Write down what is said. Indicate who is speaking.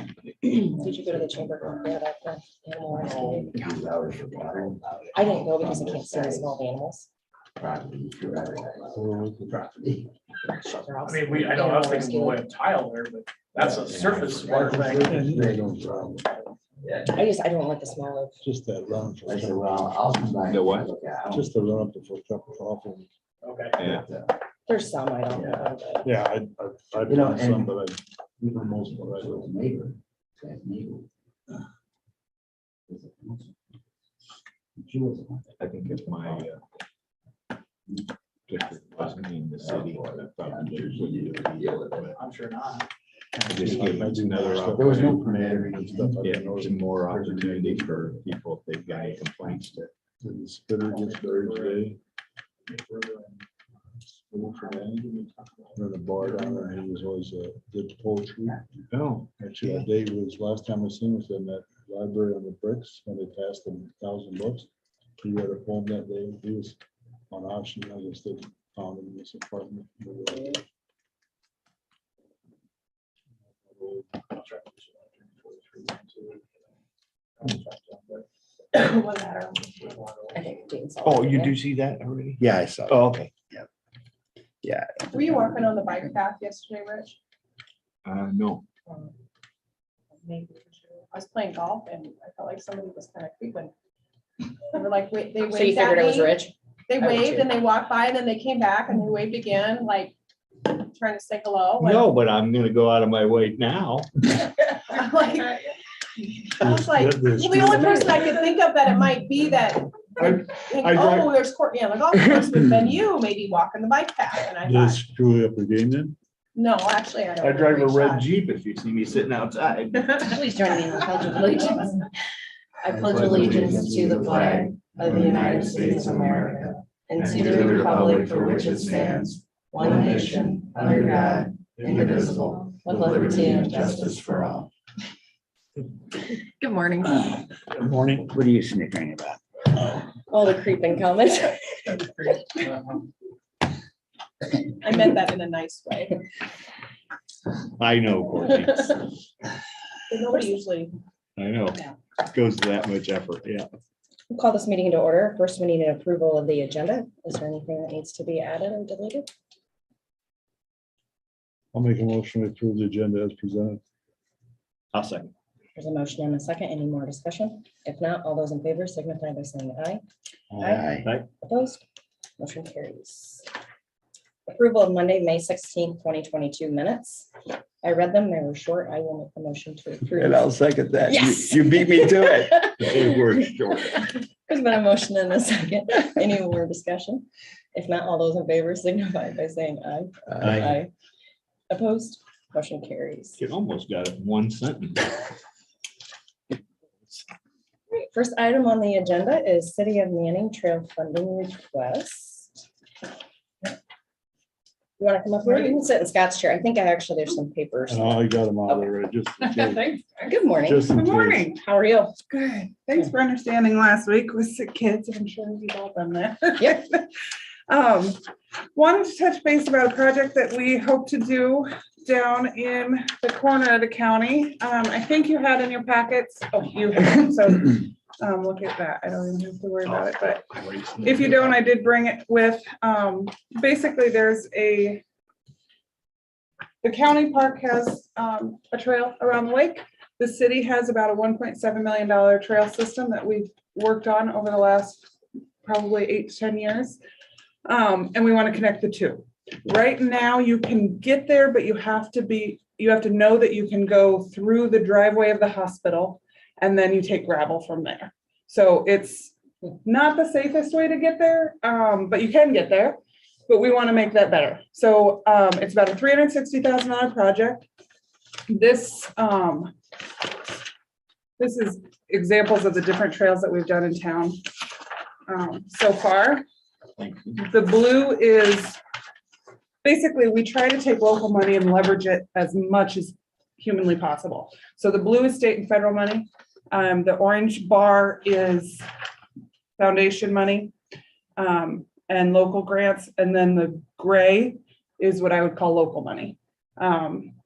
Speaker 1: Did you go to the chamber room for that, for animal rescue?
Speaker 2: Hours for water.
Speaker 1: I didn't go because I can't see the small animals.
Speaker 2: Property, for everything. Property.
Speaker 1: Shelter
Speaker 3: I
Speaker 1: house.
Speaker 3: mean, we, I know, I was thinking more of tile there, but that's a surface water thing.
Speaker 2: They don't problem. Yeah.
Speaker 1: I just, I don't like the smell of,
Speaker 4: Just that run. for-
Speaker 2: I said, well, I'll come back.
Speaker 5: The what?
Speaker 4: Just the run up the foot truck was awful.
Speaker 3: Okay.
Speaker 5: Yeah.
Speaker 2: uh,
Speaker 1: there's some I don't know, but
Speaker 4: Yeah, I, I, I've
Speaker 2: You know,
Speaker 4: done some,
Speaker 2: and-
Speaker 4: but I,
Speaker 2: Even most of us with neighbor, that neighbor. She was.
Speaker 5: I think if my. uh, district Wasn't in the city.
Speaker 6: Oh,
Speaker 5: I thought the Jews would do it, but
Speaker 3: I'm sure not.
Speaker 5: I Just give it another.
Speaker 2: There was no
Speaker 5: opportunity.
Speaker 2: permit.
Speaker 5: Yeah, there's more opportunity for people if they've got any complaints to.
Speaker 4: did the spitter get buried today, or the bar down there, he was always a good poetry.
Speaker 5: Oh.
Speaker 4: Actually, the day was, last time I seen was in that library on the bricks, when they passed them thousand books. He read a poem that day, he was on auction, I guess they found him in this apartment.
Speaker 7: um,
Speaker 1: I think Jane's.
Speaker 6: Oh, you do see that already?
Speaker 5: Yeah, I saw.
Speaker 6: Oh, okay.
Speaker 7: Were you walking on the bike path yesterday, Rich?
Speaker 5: Uh, no,
Speaker 7: Maybe. I was playing golf and I felt like somebody was kind of creeping. They were like, wait, they
Speaker 1: So you
Speaker 7: waved
Speaker 1: figured it
Speaker 7: at
Speaker 1: was
Speaker 7: me.
Speaker 1: rich?
Speaker 7: They
Speaker 1: I would
Speaker 7: waved
Speaker 1: too.
Speaker 7: and they walked by and then they came back and they waved again, like trying to say hello. like-
Speaker 6: No, but I'm gonna go out of my way now.
Speaker 7: I'm like- I was like,
Speaker 4: There's-
Speaker 7: well, the only person I could think of that it might be that,
Speaker 4: I-
Speaker 7: like,
Speaker 4: I drive-
Speaker 7: oh, there's Courtney on the golf course, but then you maybe walking the bike path. And I
Speaker 4: Did it
Speaker 7: thought,
Speaker 4: screw up again then?
Speaker 7: no, actually, I don't.
Speaker 6: I drive a
Speaker 7: think
Speaker 6: red
Speaker 7: so."
Speaker 6: Jeep if you see me sitting outside.
Speaker 1: Please join me in the pledge of allegiance. I pledge
Speaker 2: allegiance to the flag
Speaker 1: of the United States of America and to the republic for which it stands, one nation, under God, indivisible, with liberty and justice
Speaker 2: for all.
Speaker 1: Good morning.
Speaker 6: Morning.
Speaker 2: What are you snickering about?
Speaker 1: All the creeping comments.
Speaker 7: I meant that in a nice way.
Speaker 6: I know, Courtney.
Speaker 7: Nobody usually
Speaker 6: I know.
Speaker 1: Yeah.
Speaker 6: It Goes to that much effort, yeah.
Speaker 1: We'll Call this meeting into order. First, we need an approval of the agenda. Is there anything that needs to be added or deleted?
Speaker 4: I'll make a motion to approve the agenda as presented.
Speaker 6: I'll second.
Speaker 1: There's a motion and a second. Any more discussion? If not, all those in favor signify by saying aye. Aye. Opposed? Motion carries. Approval of Monday, May sixteenth, twenty twenty-two minutes. I read them. They were short. I will make the motion to
Speaker 5: and I'll
Speaker 1: approve.
Speaker 5: second that. You-
Speaker 1: Yes.
Speaker 5: You beat me to it. It
Speaker 1: There's
Speaker 5: worked short.
Speaker 1: been a motion and a second. Any more discussion? If not, all those in favor signify by saying aye.
Speaker 5: Uh,
Speaker 1: Aye. Opposed, motion carries.
Speaker 6: You almost got it in one sentence.
Speaker 1: Great. First item on the agenda is City of Manning Trail Funding Request. You want to come up here? You can sit in Scott's chair. I think I actually, there's some papers.
Speaker 5: Uh,
Speaker 4: And I Oh, got them out of there, just. in case.
Speaker 8: Thanks.
Speaker 1: Good morning.
Speaker 4: Just in
Speaker 8: Good
Speaker 4: case.
Speaker 8: morning.
Speaker 1: How are you?
Speaker 8: Good. Thanks for understanding last week with sick kids. I'm sure you've all done that.
Speaker 1: Yep.
Speaker 8: Um, wanted to touch base about a project that we hope to do down in the corner of the county. Um, I think you had in your packets, oh, you have, so, um, look at that. I don't even have to worry about it, but if you don't, Oh, I did bring it with, um, basically, there's a. The county park has, um, a trail around the lake. The city has about a one point seven million dollar trail system that we've worked on over the last probably eight to ten years. Um, and we want to connect the two. Right now, you can get there, but you have to be, you have to know that you can go through the driveway of the hospital. And then you take gravel from there. So it's not the safest way to get there, um, but you can get there. But we want to make that better. So, um, it's about a three hundred sixty thousand dollar project. This, um, this is examples of the different trails that we've done in town, um, so far. The blue is, basically, we try to take local money and leverage it as much as humanly possible. So the blue is state and federal money. Um, the orange bar is foundation money um, and local grants. And then the gray is what I would call local money. Um,